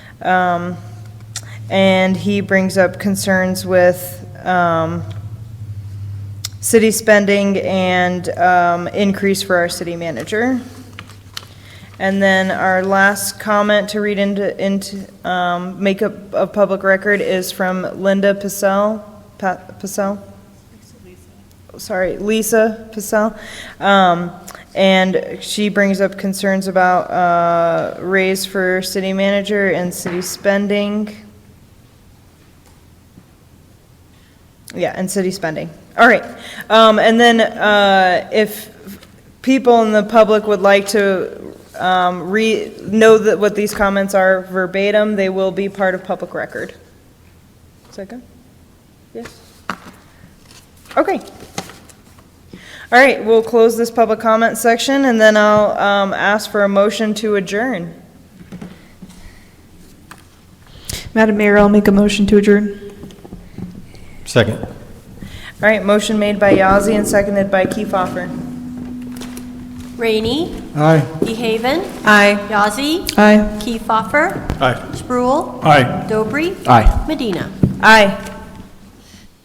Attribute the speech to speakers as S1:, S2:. S1: Um, And he brings up concerns with um, city spending and um, increase for our city manager. And then our last comment to read into, into um, makeup of public record is from Linda Pacell, Pa- Pacell? sorry, Lisa Pacell. Um, and she brings up concerns about, uh, raise for city manager and city spending. Yeah, and city spending. All right. Um, and then, uh, if people in the public would like to, um, re, know that what these comments are verbatim, they will be part of public record. Is that good? Yes? Okay. All right, we'll close this public comment section, and then I'll um, ask for a motion to adjourn.
S2: Madam Mayor, I'll make a motion to adjourn.
S3: Second.
S1: All right, motion made by Yazzie and seconded by Kiefhoffer.
S4: Rainey,
S3: Aye.
S4: DeHaven,
S2: Aye.
S4: Yazzie,
S2: Aye.
S4: Kiefhoffer,
S3: Aye.
S4: Spruill,
S3: Aye.
S4: Dobry,
S3: Aye.
S4: Medina.
S1: Aye.